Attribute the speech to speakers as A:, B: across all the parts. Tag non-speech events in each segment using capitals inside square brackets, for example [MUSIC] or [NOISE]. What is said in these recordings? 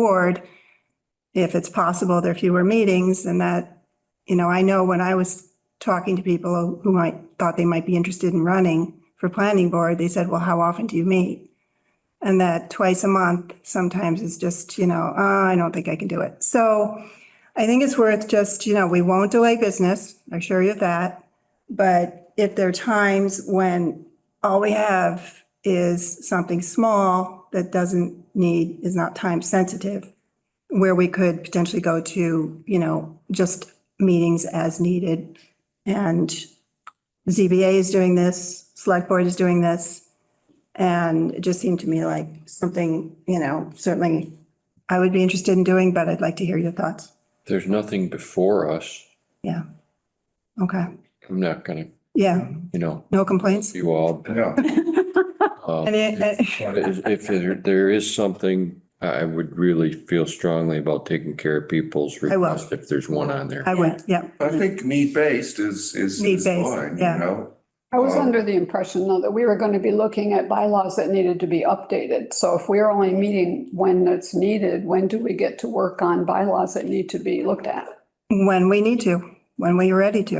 A: board, if it's possible, there are fewer meetings and that, you know, I know when I was talking to people who might, thought they might be interested in running for planning board, they said, well, how often do you meet? And that twice a month sometimes is just, you know, "Ah, I don't think I can do it. So I think it's worth just, you know, we won't delay business, I assure you of that. But if there are times when all we have is something small that doesn't need, is not time sensitive, where we could potentially go to, you know, just meetings as needed. And ZBA is doing this, select board is doing this. And it just seemed to me like something, you know, certainly I would be interested in doing, but I'd like to hear your thoughts.
B: There's nothing before us.
A: Okay,
B: I'm not gonna,
A: yeah,
B: you know,
A: no complaints?
B: you all.
C: Yeah,
B: uh,
A: And it- it-
B: but If if there- there is something, I I would really feel strongly about taking care of people's
A: I will.
B: requests if there's one on there.
A: I would, yeah,
C: I think need-based is, is. is
A: Need-based,
C: fine,
A: yeah.
C: You know,
D: I was
C: Um,
D: under the impression, though, that we were going to be looking at bylaws that needed to be updated. So if we're only meeting when it's needed, when do we get to work on bylaws that need to be looked at?
A: when we need to, when we're ready to,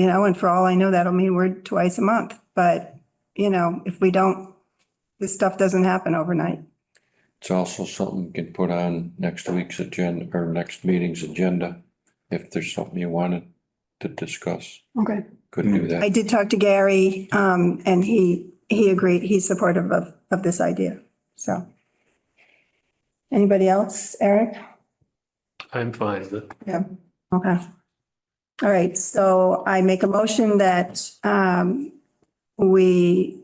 A: you know, and for all I know, that'll mean we're twice a month. But, you know, if we don't, this stuff doesn't happen overnight.
B: It's also something we can put on next week's agenda or next meeting's agenda. If there's something you wanted to discuss,
D: Okay,
B: could do
A: I
B: that.
A: did talk to Gary, um, and he, he agreed, he's supportive of, of this idea, so. Anybody else? Eric?
E: I'm fine with it.
A: Okay. All right, so I make a motion that, um, we,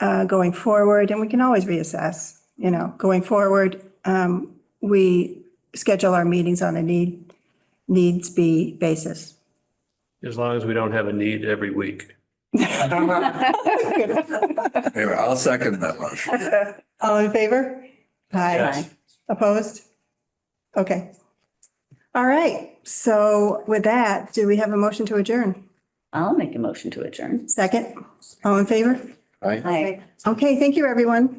A: uh, going forward, and we can always reassess, you know, going forward, um, we schedule our meetings on a need, needs be basis. [LAUGHS]
E: As long as we don't have a need every week.
C: anyway, I'll second that motion.
A: All in favor?
E: Yes.
A: Opposed? Okay. All right, so with that, do we have a motion to adjourn?
F: I'll make a motion to adjourn.
A: Second? All in favor?
B: I
F: Aye.
A: Okay, thank you, everyone.